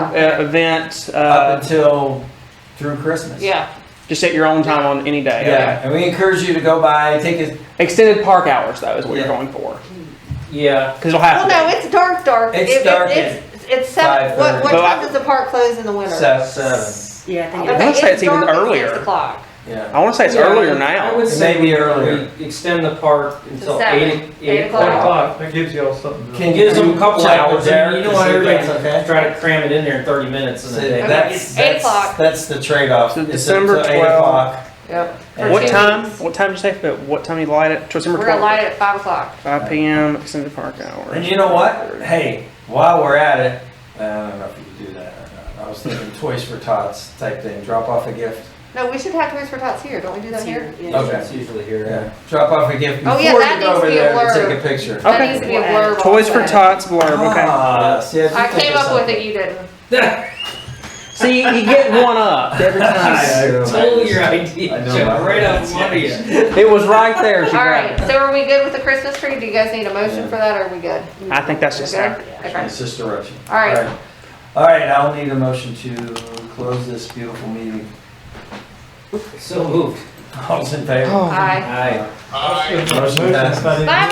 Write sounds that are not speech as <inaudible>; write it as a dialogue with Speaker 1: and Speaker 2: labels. Speaker 1: uh, event,
Speaker 2: up
Speaker 1: uh,
Speaker 2: until through Christmas.
Speaker 3: Yeah,
Speaker 1: just at your own time on any day. okay.
Speaker 2: Yeah, and we encourage you to go by, take a,
Speaker 1: Extended park hours though is what you're
Speaker 2: Yeah.
Speaker 1: going for,
Speaker 2: yeah,
Speaker 1: because it'll have
Speaker 3: well,
Speaker 1: to.
Speaker 3: no,
Speaker 1: be.
Speaker 3: it's dark, dark.
Speaker 2: It's
Speaker 3: It- it-
Speaker 2: dark
Speaker 3: It's, it's seven, what, what
Speaker 1: But I-
Speaker 3: time does the park close in the winter?
Speaker 2: se- seven,
Speaker 4: Yeah, I think
Speaker 1: I
Speaker 4: it
Speaker 1: wanna
Speaker 3: Okay,
Speaker 1: say it's even
Speaker 3: dark at
Speaker 1: earlier.
Speaker 3: Six o'clock.
Speaker 2: yeah.
Speaker 1: I want to say it's
Speaker 5: Yeah,
Speaker 1: earlier
Speaker 5: I
Speaker 1: now.
Speaker 5: would
Speaker 2: It
Speaker 5: say
Speaker 2: may be
Speaker 5: we-
Speaker 2: earlier.
Speaker 5: we Extend the park until
Speaker 3: seven,
Speaker 5: eight,
Speaker 3: eight
Speaker 5: eight
Speaker 3: o'clock.
Speaker 5: o'clock.
Speaker 6: That gives y'all something to.
Speaker 2: Can
Speaker 5: Gives
Speaker 2: you
Speaker 5: them a couple
Speaker 2: check
Speaker 5: hours
Speaker 2: with Derek
Speaker 5: there, you
Speaker 2: to
Speaker 5: know,
Speaker 2: see if
Speaker 5: everybody's
Speaker 2: that's okay?
Speaker 5: try to cram it in there in thirty minutes in
Speaker 2: So
Speaker 5: a day.
Speaker 2: That's,
Speaker 3: Eight
Speaker 2: that's,
Speaker 3: o'clock.
Speaker 2: that's the trade-off.
Speaker 1: So
Speaker 2: It's
Speaker 1: December
Speaker 2: until eight
Speaker 1: 12.
Speaker 2: o'clock.
Speaker 3: Yep.
Speaker 2: And-
Speaker 1: What
Speaker 3: two
Speaker 1: time?
Speaker 3: weeks.
Speaker 1: What time did you say? But what time you light it? December
Speaker 3: We're gonna
Speaker 1: twelfth,
Speaker 3: light it at five o'clock.
Speaker 1: five p.m. Extended park hours.
Speaker 2: And you know what? Hey, while we're at it, uh, I don't know if you can do that or not. I was thinking Toys for Tots type thing, drop off a gift.
Speaker 3: No, we should have Toys for Tots here, don't we do
Speaker 4: is
Speaker 3: that here?
Speaker 4: here. Yeah.
Speaker 2: Okay.
Speaker 5: It's
Speaker 2: <laughs>
Speaker 5: usually here.
Speaker 2: Yeah, drop off a gift
Speaker 3: Oh,
Speaker 2: before
Speaker 3: yeah,
Speaker 2: you
Speaker 3: that
Speaker 2: go
Speaker 3: needs to
Speaker 2: over
Speaker 3: be a
Speaker 2: there to
Speaker 3: blurb.
Speaker 2: take a picture.
Speaker 1: Okay.
Speaker 3: That needs to be a blurb. on
Speaker 1: Toys for
Speaker 3: that.
Speaker 1: Tots blurb. Oh, Okay.
Speaker 2: Ah, see, I do
Speaker 3: I
Speaker 2: think
Speaker 3: came
Speaker 2: of
Speaker 3: up with
Speaker 2: something.
Speaker 3: it, you didn't.
Speaker 1: See, you get one up every
Speaker 2: <laughs>
Speaker 1: time.
Speaker 2: <laughs> I know.
Speaker 5: Stole <laughs> your idea,
Speaker 2: I know.
Speaker 5: Joe, right <laughs> out from under you.
Speaker 1: it was right there. She
Speaker 3: All
Speaker 1: grabbed
Speaker 3: right, so are we good with the Christmas tree? Do you guys need a motion for that, or are we good?
Speaker 1: it. I think that's
Speaker 3: We
Speaker 1: just
Speaker 3: good?
Speaker 1: that.
Speaker 3: Okay.
Speaker 2: It's just a direction.
Speaker 3: All right.
Speaker 2: All right, I'll need a motion to close this beautiful meeting. <laughs>
Speaker 5: So moved.
Speaker 2: All's in favor?
Speaker 1: Oh,
Speaker 3: Aye.
Speaker 5: Aye.
Speaker 2: Motion passed.
Speaker 3: Bye.